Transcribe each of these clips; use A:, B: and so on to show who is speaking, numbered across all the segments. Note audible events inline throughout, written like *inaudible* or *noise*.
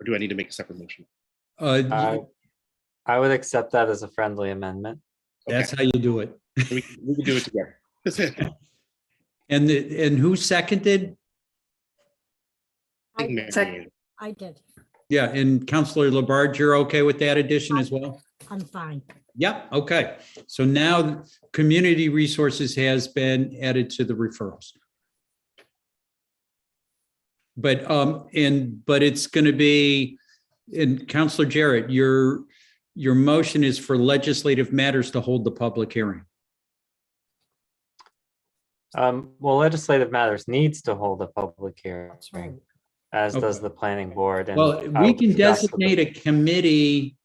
A: Or do I need to make a separate motion?
B: Uh,
C: I
B: y- Mm-hmm.
C: I would accept that as a friendly amendment.
B: that's how you do it.
A: We can we can do it together. *laughs*
B: And, the- and who seconded?
A: I think
D: I
A: Mary
D: sec-
A: Ann.
D: I did.
B: Yeah, and Counselor Labarge, you're okay with that addition as well?
D: I'm fine.
B: Yep, okay. So now community resources has been added to the referrals. But um, and but it's going to be, and Counselor Jarrett, your your motion is for legislative matters to hold the public hearing.
C: Um, well, legislative matters needs to hold a public
D: That's right.
C: hearing, as does
B: Okay.
C: the planning board. and
B: Well,
C: I
B: we
C: would
B: can
C: discuss with the-
B: designate a committee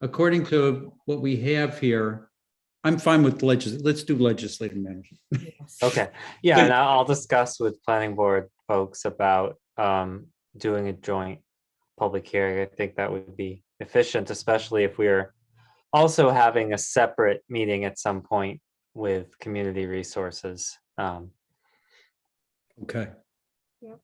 B: according to what we have here. I'm fine with legis, let's do legislative matters.
D: Oh, Yes.
C: Okay, yeah, and I'll I'll discuss with planning board folks about um doing a joint public hearing. I think that would be efficient, especially if we're also having a separate meeting at some point with community resources. Um,
B: Okay.
D: Yep.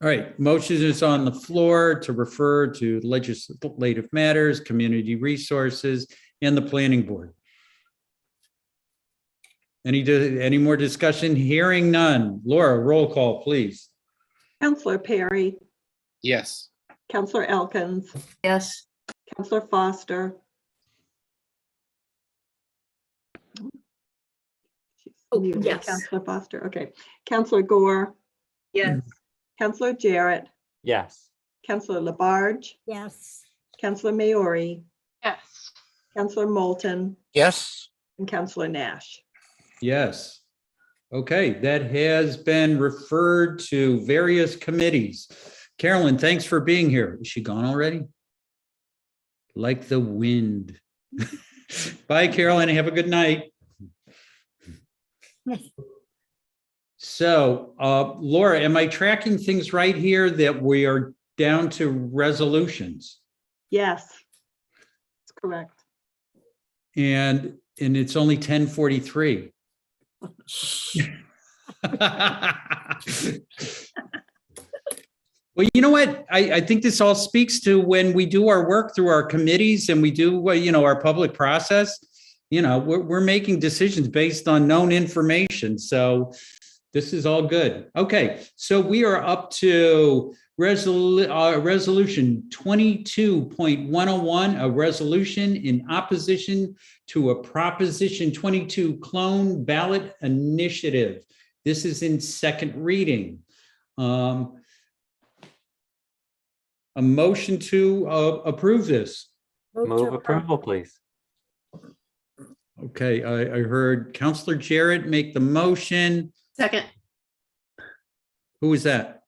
B: All right, motion is on the floor to refer to legislative matters, community resources, and the planning board. Any, di- any more discussion? Hearing none. Laura, roll call, please.
E: Counselor Perry,
A: Yes,
E: Counselor Elkins,
F: Yes,
E: Counselor Foster. She's
D: Oh,
E: muted.
D: yes.
E: Counselor Foster, okay. Counselor Gore.
F: Yes.
E: Counselor Jarrett,
C: yes,
E: Counselor Labarge,
D: Yes,
E: Counselor Maori,
G: Yes.
E: Counselor Moulton,
H: Yes,
E: and Counselor Nash.
B: Yes. Okay, that has been referred to various committees. Carolyn, thanks for being here. Is she gone already? Like the wind. *laughs* Bye, Carolyn. Have a good night.
D: Yes.
B: So, uh, Laura, am I tracking things right here that we are down to resolutions?
E: Yes. That's correct.
B: And, and it's only ten forty-three. *laughs* Well, you know what? I, I think this all speaks to when we do our work through our committees and we do, well, you know, our public process. You know, we're, we're making decisions based on known information. So this is all good. Okay, so we are up to resolu- uh, resolution twenty-two point one oh one, a resolution in opposition to a Proposition 22 clone ballot initiative. This is in second reading. Um, A motion to uh, approve this.
D: to
C: move
D: approve.
C: approval, please.
B: Okay, I, I heard Counselor Jarrett make the motion.
F: second,
B: Who was that?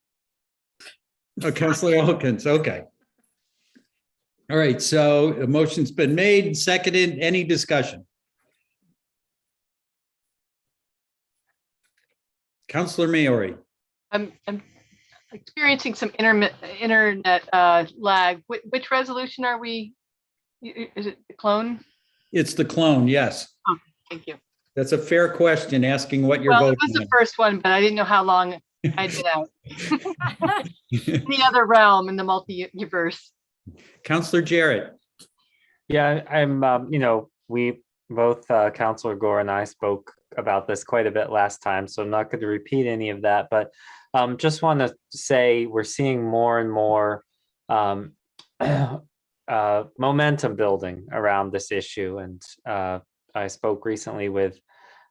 B: Oh, Counselor Elkins, okay. All right, so a motion's been made, seconded, any discussion? Counselor Maori,
G: I'm, I'm experiencing some internet, internet uh, lag. Which, which resolution are we? i- i- Is it the clone?
B: it's the clone, yes.
G: Thank you.
B: That's a fair question, asking what you're
G: Well, it was
B: voting
G: the
B: on.
G: first one, but I didn't know how long
B: *laughs*
G: I'd been out. In the other realm, in the multiverse.
B: Counselor Jarrett,
C: Yeah, I- I'm, um, you know, we both, uh, Counselor Gore and I spoke about this quite a bit last time, so I'm not going to repeat any of that, but um, just want to say we're seeing more and more um, *clears throat* uh, momentum building around this issue. And uh, I spoke recently with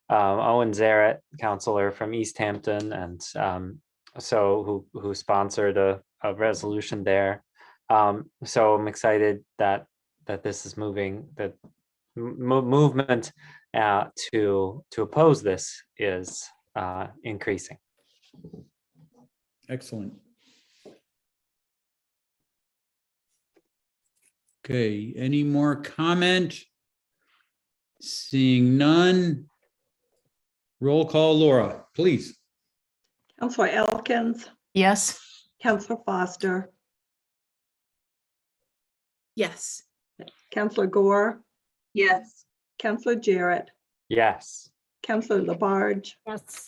C: um, Owen Zaret, counselor from East Hampton, and um, so who who sponsored a, a resolution there. Um, so I'm excited that that this is moving that m- mo- movement uh, to to oppose this is uh, increasing.
B: excellent. Okay, any more comment? Seeing none. Roll call Laura, please.
E: Counselor Elkins,
F: yes.
E: Counselor Foster,
F: Yes.
E: Counselor Gore,
F: Yes.
E: Counselor Jarrett,
C: Yes.
E: Counselor Labarge,
D: *laughs* Yes,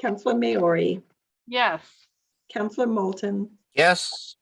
E: Counselor Maori,
G: Yes.
E: Counselor Moulton,
H: yes,